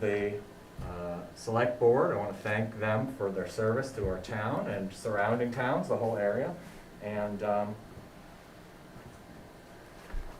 the uh, Select Board. I want to thank them for their service to our town and surrounding towns, the whole area. And um,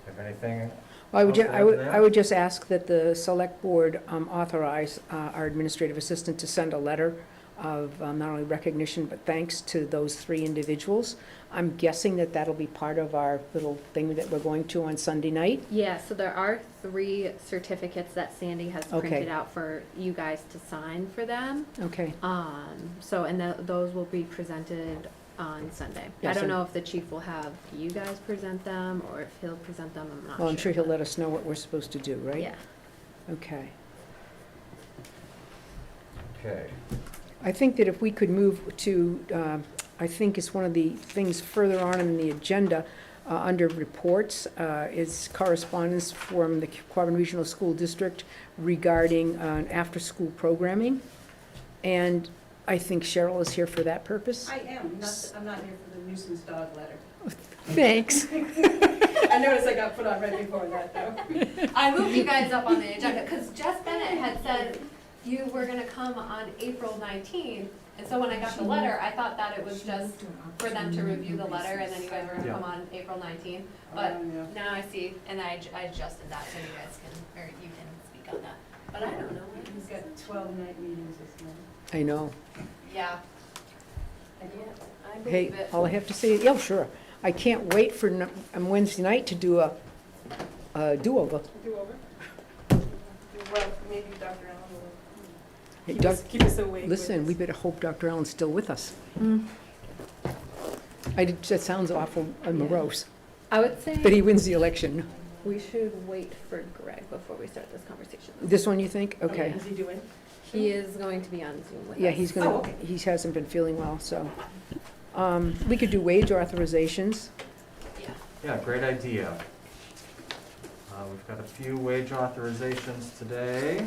if anything, Well, I would, ju- Okay, I would, after that? I would just ask that the select board um, authorize uh, our administrative assistant to send a letter of um, not only recognition, but thanks to those three individuals. I'm guessing that that'll be part of our little thing that we're going to on Sunday night. Yeah, so there are three certificates that Sandy has Okay. printed out for you guys to sign for them. Okay, Um, so, and tho- those will be presented on Sunday. I Yes, don't and- know if the chief will have you guys present them or if he'll present them, I'm not sure. well, I'm sure he'll but- let us know what we're supposed to do, right? Yeah, Okay. okay. I think that if we could move to, um, I think it's one of the things further on in the agenda, uh, under reports, uh, is correspondence from the Quabbin Regional School District regarding uh, after-school programming. And I think Cheryl is here for that purpose. I am, not, I'm not here for the nuisance dog letter. Thanks. I noticed I got put on right before that, though. I moved you guys up on the agenda, because Jess Bennett had said you were gonna come on April nineteenth, and so when I got the letter, I thought that it was just for them to review the letter, and then you guys were gonna Yeah. come on April nineteenth. But Um, yeah. now I see, and I, I adjusted that, so you guys can, or you can speak on that, but I don't know. what it We've is. got twelve night meetings this month. I know. Yeah, I yeah, can't- I Hey, believe it. all I have to say, yeah, sure. I can't wait for n- on Wednesday night to do a, a do-over. Do over? Well, maybe Dr. Allen will. Hey, keep us- Doc- Keep us awake. with Listen, we this. better hope Dr. Allen's still with us. I did, that sounds awful and morose, I would but he say wins the election. we should wait for Greg before we start this conversation. This one, you think? Oh, Okay. Is he doing? He is going to be on Zoom with us. Yeah, he's Oh, gonna, okay. he hasn't been feeling well, so. Um, we could do wage authorizations. Yeah. Yeah, great idea. Uh, We've got a few wage authorizations today.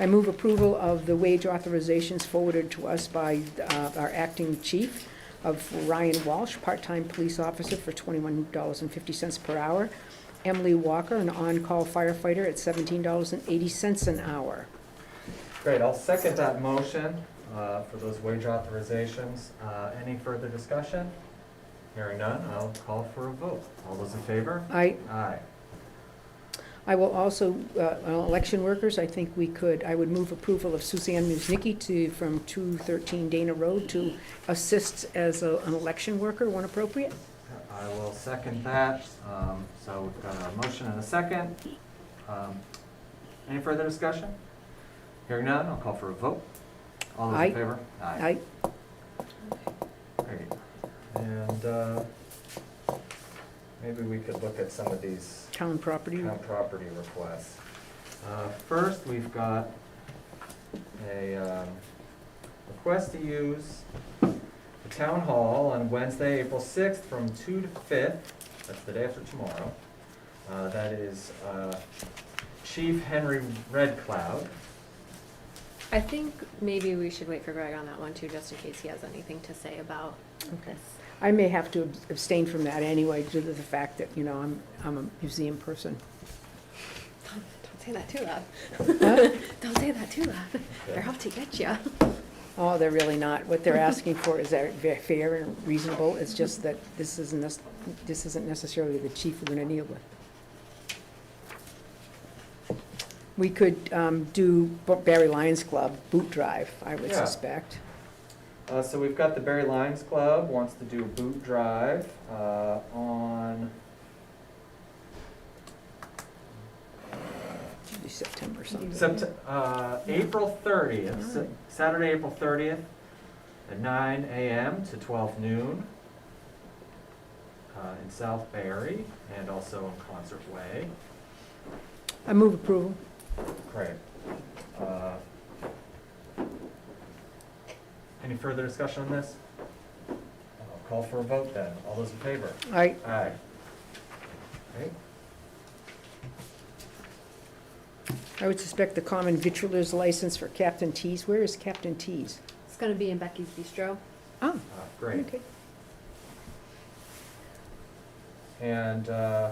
I move approval of the wage authorizations forwarded to us by, uh, our acting chief of Ryan Walsh, part-time police officer for twenty-one dollars and fifty cents per hour. Emily Walker, an on-call firefighter at seventeen dollars and eighty cents an hour. Great, I'll second that motion uh, for those wage authorizations. Uh, Any further discussion? Hearing none, I'll call for a vote. All those in favor? I, Aye. I will also, uh, on election workers, I think we could, I would move approval of Suzanne Musnicki to, from 213 Dana Road to assist as a- an election worker when appropriate. I will second that. Um, So we've got a motion and a second. Um, Any further discussion? Hearing none, I'll call for a vote. All those Aye. in favor? I, Great. And uh, maybe we could look at some of these town property, town property requests. Uh, First, we've got a um, request to use the town hall on Wednesday, April 6th, from 2 to 5th, that's the day after tomorrow. Uh, That is uh, Chief Henry Redcloud. I think maybe we should wait for Greg on that one too, just in case he has anything to say about okay. this. I may have to abstain from that anyway, due to the fact that, you know, I'm, I'm a museum person. Don't say that too loud. Huh? Don't say that too loud. They're Okay. out to get you. Oh, they're really not. What they're asking for is that ve- fair and reasonable. It's just that this isn't, nec- this isn't necessarily the chief we're gonna deal with. We could um, do Bo- Barry Lions Club boot drive, I would Yeah. suspect. Uh, So we've got the Barry Lions Club wants to do a boot drive uh, on, Should be September something. Sept- uh, April thirtieth, Sa- Alright. Saturday, April thirtieth, at nine AM to twelve noon, uh, in South Barry and also in Concert Way. I move approval. Great. Uh, Any further discussion on this? I'll call for a vote then. All those in favor? I, Aye. Okay. I would suspect the common vitriol's license for Captain Tees. Where is Captain Tees? It's gonna be in Becky's Bistro. Oh, Uh, Great. okay. And uh,